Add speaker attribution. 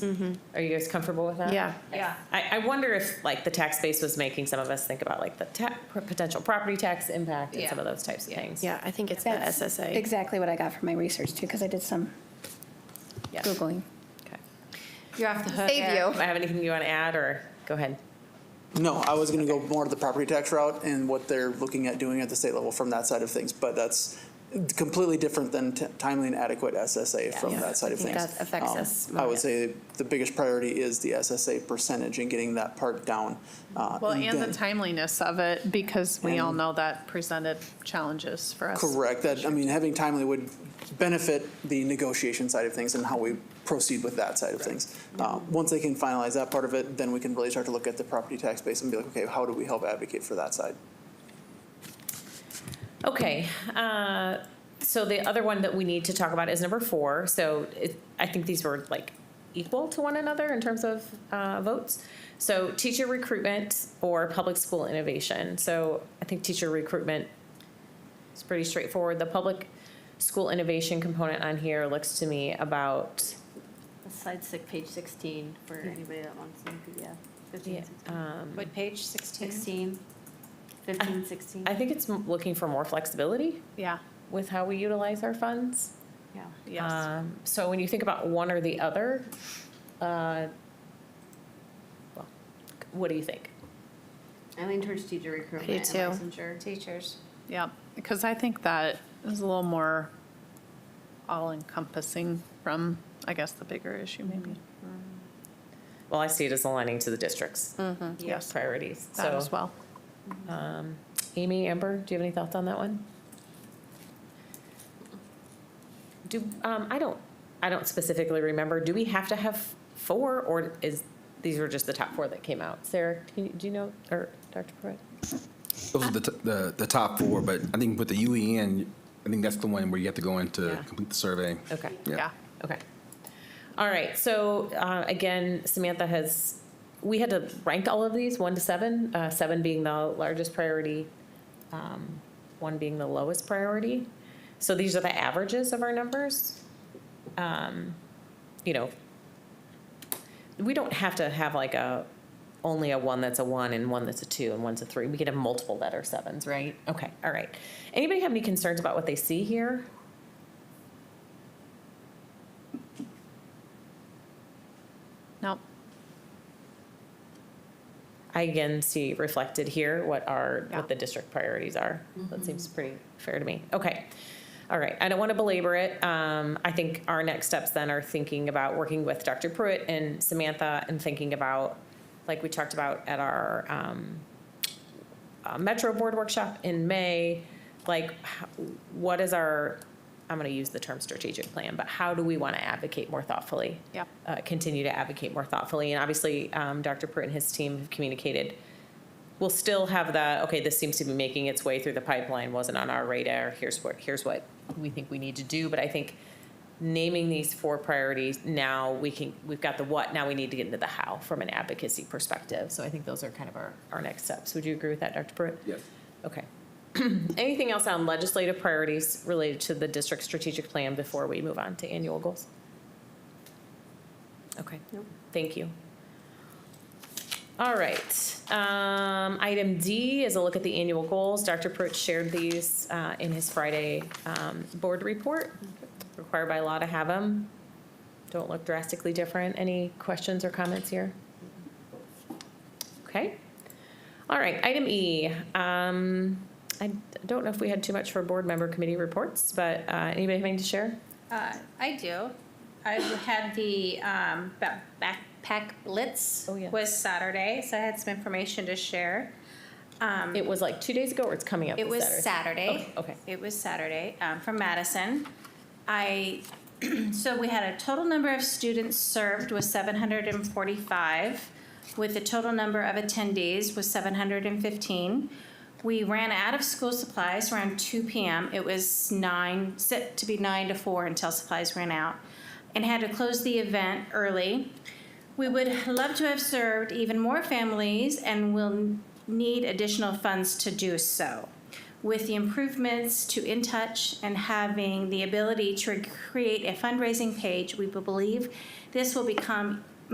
Speaker 1: Are you guys comfortable with that?
Speaker 2: Mm-hmm. Yeah.
Speaker 3: Yeah.
Speaker 1: I, I wonder if, like, the tax base was making some of us think about, like, the ta, potential property tax impact and some
Speaker 3: Yeah.
Speaker 1: of those types of things.
Speaker 2: Yeah, I think it's the
Speaker 4: That's
Speaker 2: SSA.
Speaker 4: Exactly what I got from my research too, because I did some
Speaker 1: Yeah.
Speaker 4: Googling.
Speaker 1: Okay.
Speaker 3: You're off the hook.
Speaker 4: Save
Speaker 3: Eric.
Speaker 4: you.
Speaker 1: Do I have anything you want to add, or, go ahead.
Speaker 5: No, I was going to go more to the property tax route and what they're looking at doing at the state level from that side of things, but that's completely different than t- timely and adequate SSA from
Speaker 2: Yeah.
Speaker 5: that side
Speaker 2: I
Speaker 5: of
Speaker 2: think
Speaker 5: things.
Speaker 2: that affects
Speaker 5: Um,
Speaker 2: us
Speaker 5: I
Speaker 2: more,
Speaker 5: would
Speaker 2: yeah.
Speaker 5: say the biggest priority is the SSA percentage and getting that part down. uh,
Speaker 6: Well, and the
Speaker 5: then-
Speaker 6: timeliness of it, because we all
Speaker 5: And-
Speaker 6: know that presented challenges for us.
Speaker 5: Correct, that, I mean, having timely would benefit the negotiation side of things and how we proceed with that side of things. Uh, Once they can finalize that part of it, then we can really start to look at the property tax base and be like, okay, how do we help advocate for that side?
Speaker 1: Okay, uh, so the other one that we need to talk about is number four. So it, I think these were like equal to one another in terms of uh, votes. So teacher recruitment or public school innovation. So I think teacher recruitment is pretty straightforward. The public school innovation component on here looks to me about,
Speaker 7: Slide six, page sixteen, for anybody that wants to, yeah, fifteen, sixteen.
Speaker 1: um,
Speaker 3: What page, 16?
Speaker 7: Sixteen, fifteen, sixteen,
Speaker 1: I think it's m- looking for more flexibility
Speaker 6: Yeah,
Speaker 1: with how we utilize our funds.
Speaker 7: yeah.
Speaker 6: yes.
Speaker 1: Um, So when you think about one or the other, uh, well, what do you think?
Speaker 7: I lean towards teacher recruitment and licensure.
Speaker 3: Teachers.
Speaker 6: Yeah, because I think that is a little more all-encompassing from, I guess, the bigger issue maybe.
Speaker 1: Well, I see it as aligning to the district's
Speaker 6: Yes,
Speaker 1: priorities.
Speaker 6: that
Speaker 1: So,
Speaker 6: as well.
Speaker 1: um, Amy, Amber, do you have any thoughts on that one? Do, um, I don't, I don't specifically remember, do we have to have four, or is, these were just the top four that came out? Sarah, can you- do you know, or Dr. Pruitt?
Speaker 8: Those are the, t- the, the top four, but I think with the UEN, I think that's the one where you have to go in to
Speaker 1: Yeah.
Speaker 8: complete the survey.
Speaker 1: Okay.
Speaker 6: Yeah,
Speaker 1: Okay. All right, so uh, again, Samantha has, we had to rank all of these, one to seven, uh, seven being the largest priority, um, one being the lowest priority. So these are the averages of our numbers. Um, You know, we don't have to have like a, only a one that's a one and one that's a two and one's a three. We could have multiple that are sevens, right? Okay, all right. Anybody have any concerns about what they see here?
Speaker 6: no,
Speaker 1: I again see reflected here what are,
Speaker 6: Yeah.
Speaker 1: what the district priorities are. That seems pretty fair to me. Okay. All right. I don't want to belabor it. Um, I think our next steps then are thinking about working with Dr. Pruitt and Samantha and thinking about, like we talked about at our, um, uh, Metro Board workshop in May, like, h- what is our, I'm going to use the term strategic plan, but how do we want to advocate more thoughtfully?
Speaker 6: Yep.
Speaker 1: Uh, Continue to advocate more thoughtfully. And obviously, um, Dr. Pruitt and his team have communicated. We'll still have the, okay, this seems to be making its way through the pipeline, wasn't on our radar. Here's what, here's what we think we need to do. But I think naming these four priorities, now we can, we've got the what, now we need to get into the how from an advocacy perspective. So I think those are kind of our, our next steps. Would you agree with that, Dr. Pruitt?
Speaker 8: Yes.
Speaker 1: Okay. Anything else on legislative priorities related to the district strategic plan before we move on to annual goals? Okay. Thank you. All right. Um, Item D is a look at the annual goals. Dr. Pruitt shared these uh, in his Friday um, board report. Required by law to have them. Don't look drastically different. Any questions or comments here? Okay. All right, item E. Um, I don't know if we had too much for board member committee reports, but uh, anybody have anything to share?
Speaker 3: Uh, I do. I had the um, ba- backpack blitz
Speaker 1: Oh, yeah.
Speaker 3: was Saturday, so I had some information to share. Um,
Speaker 1: It was like two days ago, or it's coming up
Speaker 3: It
Speaker 1: this
Speaker 3: was
Speaker 1: Saturday?
Speaker 3: Saturday.
Speaker 1: Oh, okay.
Speaker 3: It was Saturday, um, from Madison. I, so we had a total number of students served was seven hundred and forty-five, with the total number of attendees was seven hundred and fifteen. We ran out of school supplies around two PM. It was nine, set to be nine to four until supplies ran out, and had to close the event early. We would love to have served even more families and will need additional funds to do so. With the improvements to In Touch and having the ability to create a fundraising page, we believe this will become